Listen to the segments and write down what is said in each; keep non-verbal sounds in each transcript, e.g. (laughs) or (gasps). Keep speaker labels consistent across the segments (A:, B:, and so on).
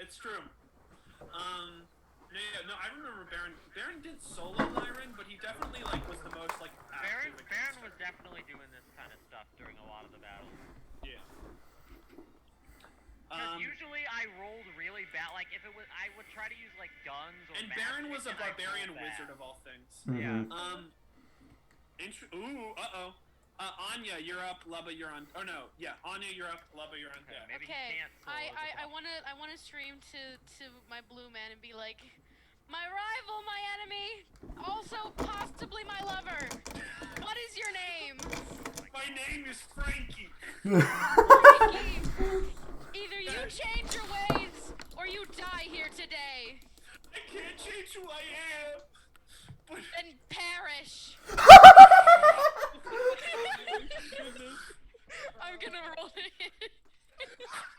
A: it's true. Um, no, yeah, no, I remember Baron. Baron did solo Lyran, but he definitely like was the most like
B: Baron,
A: active. against
B: Baron
A: her.
B: was definitely doing this kind of stuff during a lot of the battles.
A: Yeah.
B: 'Cause
A: Um,
B: usually I rolled really bad. Like if it was, I would try to use like guns. Or
A: and
B: magic,
A: Baron was a
B: and I rolled
A: barbarian
B: bad.
A: wizard of all things.
B: Yeah.
C: Mhm.
A: Um. Intr- Ooh. Uh oh. Uh, Anya, you're up. Lubba, you're on. Oh no. Yeah. Anya, you're up. Lubba, you're on
B: Okay,
A: deck.
B: maybe he
D: Okay,
B: can't solo the
D: I, I, I
B: boss.
D: wanna I wanna stream to to my blue man and be like, my rival, my enemy, also possibly my lover. What is your name?
A: My name is Frankie.
D: Frankie, Either you change your ways or you die here today
A: I can't change who I am. But
D: and perish. I'm gonna roll it.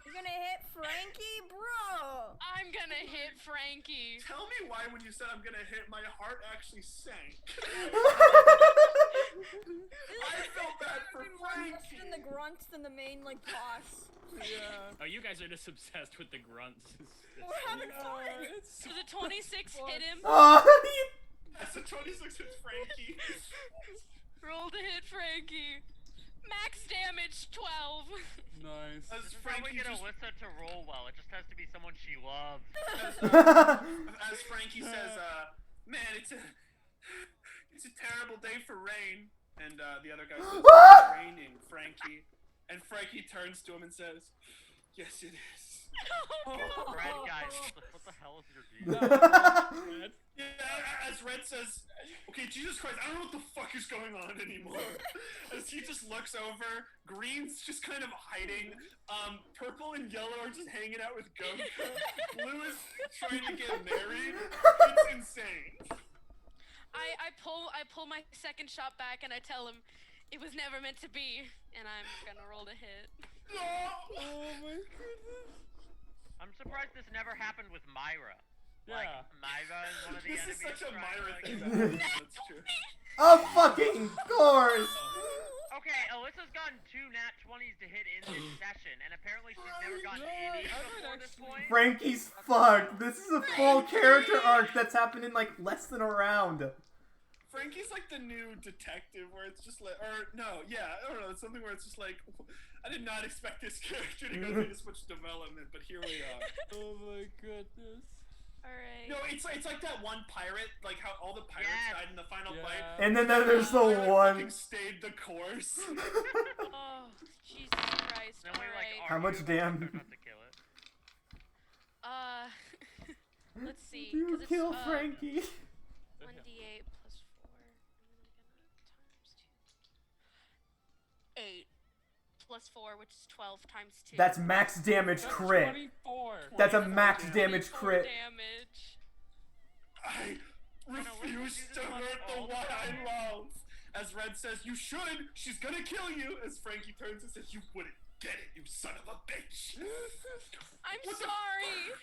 E: You're gonna hit Frankie, bro.
D: I'm gonna hit Frankie.
A: tell me why when you said I'm gonna hit, my heart actually sank. I felt bad for
E: Everyone less
A: Frankie.
E: than the grunts than the main like boss.
A: Yeah.
F: Oh, you guys are just obsessed with the grunts. (laughs) It's-
E: We're having fun.
D: So the 26 hit him.
C: oh, you-
A: That's a 26 with Frankie.
D: Roll to hit Frankie. Max damage 12.
G: Nice.
A: As
B: Just
A: Frankie
B: probably get
A: just
B: Alyssa to roll well. It just has to be someone she
G: (laughs)
B: loves.
C: (laughs)
A: as Frankie says, uh, man, it's a it's a terrible day for rain. And uh, the other guy says, "It's raining, Frankie. And Frankie turns to him and says, yes, it is.
D: (laughs) Oh,
B: Red
E: (laughs)
B: guy, what the, (laughs) what the hell is your deal?
A: Yeah, as Red says, okay, Jesus Christ, I don't know what the fuck is going on anymore. (laughs) as he just looks over, green's just kind of hiding, um, purple and yellow are just hanging out with Goku, blue is trying to get married. It's insane.
D: I, I pull I pull my second shot back and I tell him it was never meant to be and I'm gonna roll to hit.
A: No!
G: Oh my goodness.
B: I'm surprised this never happened with Myra. Like,
G: Yeah.
B: Myra is one of the
A: This is
B: enemies.
A: such a
B: trying
A: Myra
B: to,
A: thing.
B: like-
A: that happens, That's true.
C: of fucking course.
B: Okay, Alyssa's gotten two nat 20s to hit in this
A: (laughs)
B: session, and apparently she's never gotten
G: No,
B: any
G: Oh, I would
B: before this
G: actually-
B: point.
C: Frankie's fucked. This is a full character arc that's happened in like less than a round.
A: Frankie's like the new detective where it's just like, or no, yeah, I don't know, it's something where it's just like, (laughs) I did not expect this (laughs) character to go through this much development, but here we are.
G: Oh my goodness.
D: Alright.
A: No, it's like, it's like that one pirate, like how all the pirates
B: Yes.
A: died in the final fight.
G: Yeah.
C: And then there's the
A: Pirate fucking
C: one.
A: stayed the course. (laughs)
D: Oh Jesus Christ.
B: Then we, like,
D: Alright.
C: How
B: argue
C: much
B: about
C: damn-
B: whether or not to kill it.
D: Uh (laughs) let's see.
C: You
D: 'cause it's,
C: kill
D: uh,
C: Frankie.
D: One D eight plus four. and then I'm gonna times two. Eight plus four, which is twelve times two.
C: That's max damage
G: That's
C: crit.
G: 24.
C: That's a max damage
D: 24
C: crit.
D: Damage.
A: I refuse to hurt the one I love. As Red says, you should. She's gonna kill you. As Frankie turns and says, you wouldn't get it, you son of a bitch.
D: I'm
A: What the
D: sorry.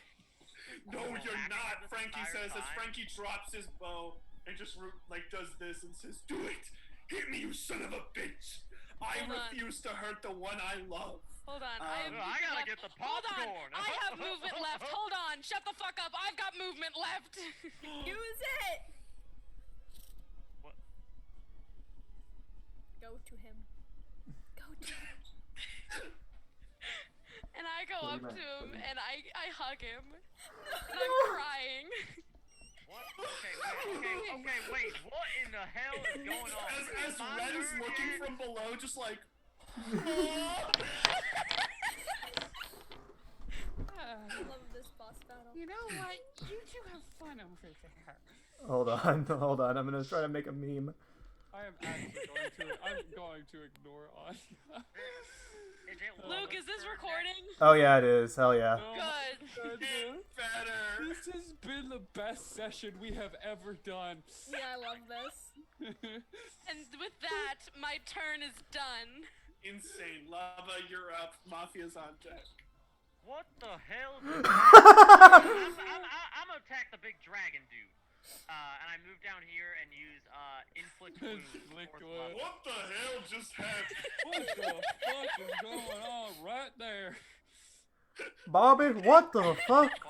A: no, you're not. Frankie says as Frankie drops his bow and just ru- like does this and says, do it. Hit me, you son of a bitch. I
D: Hold on.
A: refuse to hurt the one I love.
D: Hold on. I have
A: Um,
B: Ugh,
D: movement
B: I gotta
D: left.
B: get the
D: Hold on.
B: popcorn.
D: I
B: (laughs)
D: have movement left. Hold on. Shut the fuck up. I've got movement
B: (gasps)
D: left.
E: Use it.
B: What?
E: Go to him. Go to him.
D: and I go up
C: Put him
D: to
C: back,
D: him
C: put him
D: and I I hug
B: (laughs)
D: him. And I'm crying.
B: What? Okay, wait,
D: (laughs)
B: okay, okay, wait. What in the hell is going on?
A: As, as
B: My
A: Red is
B: nerve
A: looking
B: yet?
A: from below, just like.
E: I love this boss battle.
G: You know what? You two have fun over there.
C: Hold on, (laughs) hold on. I'm gonna try to make a meme.
G: I am actually going to. I'm going to ignore Anya.
B: Is it
D: Luke, is this
B: Lucifer next?
D: recording?
C: Oh yeah, it is. Hell yeah. (laughs)
G: Oh my
D: Good.
G: goodness.
A: better.
G: This has been the best session we have ever done. (laughs)
E: Yeah, I love this.
D: And with that, my turn is done.
A: Insane. Lava, you're up. Mafia's on deck.
B: What the
D: (laughs)
B: hell? is this? I'm, I'm, I'm, I'm gonna attack the big dragon dude. Uh, and I move down here and use uh, inflict wounds.
G: Inflict
B: fourth level.
G: wounds.
A: What the hell just happened?
G: what the fuck is going on right there?
C: Bobby, what the fuck?